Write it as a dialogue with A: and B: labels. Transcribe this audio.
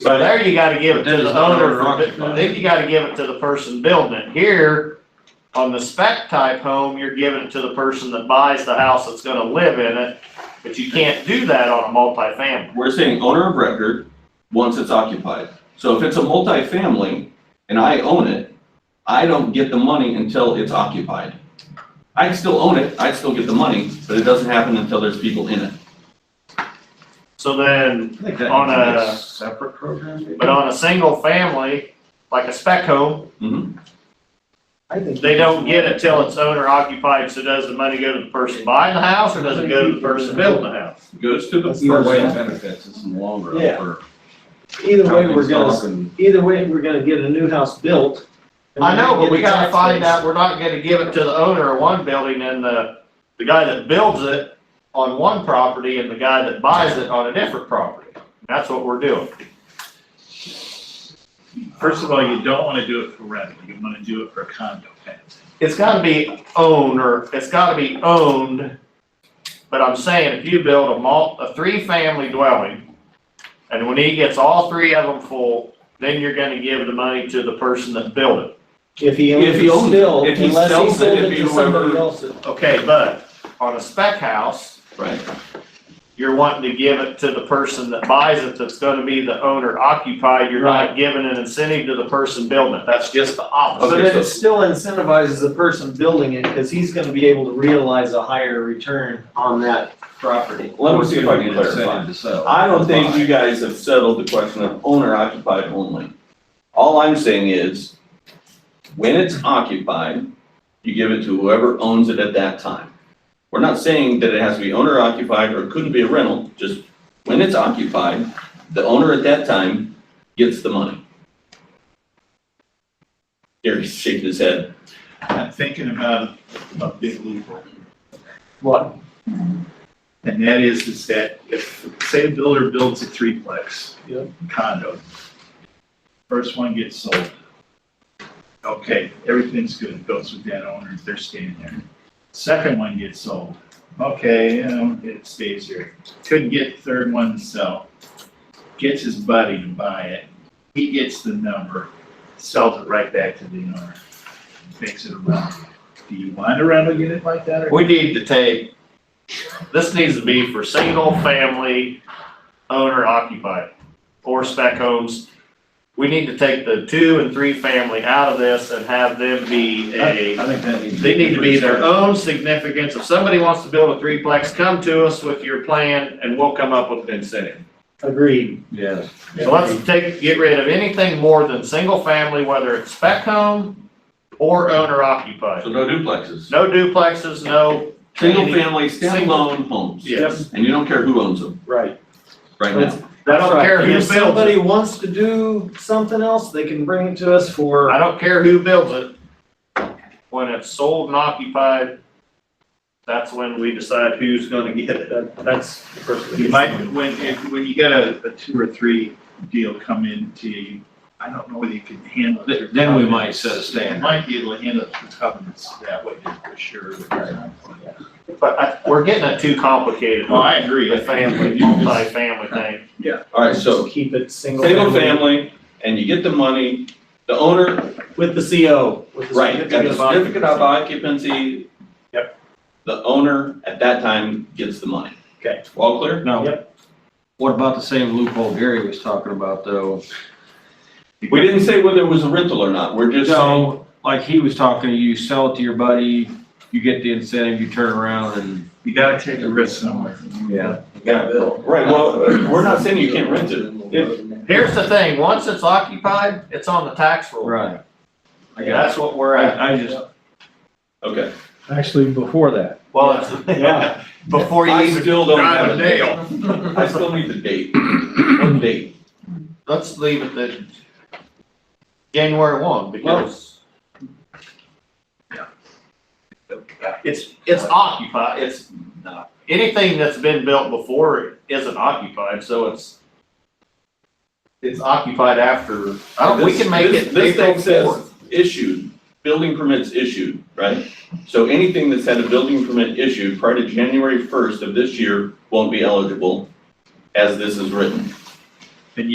A: So there you gotta give it to the
B: Depends on
A: owner,
B: the occupier.
A: then you gotta give it to the person building it. Here, on the spec type home, you're giving it to the person that buys the house that's gonna live in it, but you can't do that on a multifamily.
B: We're saying owner of record, once it's occupied. So if it's a multifamily and I own it, I don't get the money until it's occupied. I can still own it, I still get the money, but it doesn't happen until there's people in it.
A: So then,
C: I think that
A: On
C: needs to be
A: a-
C: a separate program. maybe?
A: but on a single family, like a spec home,
B: Mhm.
D: I think.
A: they don't get it till it's owner occupied, so does the money go to the person buying the house, or does it go to the person building the house?
B: Goes to the
D: That's
C: Either
D: first
C: way, it
D: step.
C: benefits us in the long run
D: Yeah.
C: for
D: Either way, we're
C: companies
D: gonna,
C: and-
D: either way, we're gonna get a new house built. and
A: I know,
D: we're
A: but we
D: gonna get
A: gotta
D: tax
A: find
D: base.
A: out, we're not gonna give it to the owner of one building and the, the guy that builds it on one property and the guy that buys it on a different property. That's what we're doing.
E: First of all, you don't wanna do it for rent, you wanna do it for condo fans.
A: It's gotta be owned, or it's gotta be owned, but I'm saying if you build a mul, a three-family dwelling, and when he gets all three of them full, then you're gonna give the money to the person that built it.
D: If he owns
B: If he
D: it
B: owns it,
D: still,
B: if he
D: unless he
B: sells it,
D: sold
B: it'd
D: it
B: be
D: to somebody
B: whoever-
D: else.
A: Okay, but on a spec house,
B: Right.
A: you're wanting to give it to the person that buys it that's gonna be the owner occupied, you're not giving an incentive to the person building it, that's just the
D: But
A: opposite.
B: Okay,
D: then
B: so-
D: it still incentivizes the person building it, cause he's gonna be able to realize a higher return on that property.
B: Let me see if I
C: Give
B: can
C: you an incentive
B: clarify.
C: to sell.
B: I don't think you guys have settled the question of owner occupied only. All I'm saying is, when it's occupied, you give it to whoever owns it at that time. We're not saying that it has to be owner occupied or it couldn't be a rental, just when it's occupied, the owner at that time gets the money. Gary's shaking his head.
E: I'm thinking about a big loophole,
D: What?
E: and that is, is that if, say a builder builds a threeplex
D: Yeah.
E: condo, first one gets sold. Okay, everything's good, It goes with that owner, they're staying there. Second one gets sold, okay, you know, it stays here. Couldn't get the third one to sell, gets his buddy to buy it, he gets the number, sells it right back to the owner, makes it a rental. Do you want a rental unit like that or?
A: We need to take, this needs to be for single family owner occupied or spec homes. We need to take the two and three family out of this and have them be a
E: I think that needs.
A: They need to be their own significance. If somebody wants to build a threeplex, come to us with your plan and we'll come up with an incentive.
D: Agreed.
C: Yes.
A: So let's take, get rid of anything more than single family, whether it's spec home or owner
B: So
A: occupied.
B: no duplexes.
A: No duplexes, no.
B: Single family,
A: Single-
B: standalone homes.
A: Yes.
B: And you don't care who owns them
D: Right.
B: right now.
A: I don't care who
D: If
A: builds it.
D: somebody wants to do something else, they can bring it to us for.
A: I don't care who builds it. When it's sold and occupied, that's when we decide who's gonna get it.
D: That, that's the person.
E: You might, when, if, when you get a, a two or three deal come in to you, I don't know whether you can handle.
C: Th-
E: it.
C: then we might set a standard.
E: Might be able to handle the covenants that way for sure.
A: But I, we're getting it too complicated.
E: Well, I agree.
A: The family, multi-family thing.
B: All right, so
D: Just Keep it single.
B: single family, and you get the money, the owner,
D: With the CO. with the
B: right, got the certificate of occupancy.
D: Yep.
B: The owner at that time gets the money.
D: Okay.
B: All clear?
C: Now, what about the same loophole Gary was talking about though?
B: We didn't say whether it was a rental or not, we're just saying,
C: So, like he was talking, you sell it to your buddy, you get the incentive, you turn around and.
E: You gotta take a risk somewhere.
C: Yeah.
B: right, well, we're not saying you can't rent it.
A: Here's the thing, once it's occupied, it's on the tax roll.
C: Right. I got
A: That's what we're at.
C: I, I just,
B: Okay.
F: Actually, before that,
A: Well, it's, before you
B: I
A: even
B: still don't
A: drive
B: have
A: a
B: a
A: nail.
B: date. I still need the date, one date.
A: Let's leave it that January one, because it's, it's occupied, it's not, anything that's been built before isn't occupied, so it's, it's occupied after, I don't, we can make
B: This-
A: it
B: This
A: April
B: thing
A: fourth.
B: says issued, building permits issued, right? So anything that's had a building permit issued prior to January first of this year won't be eligible as this is written.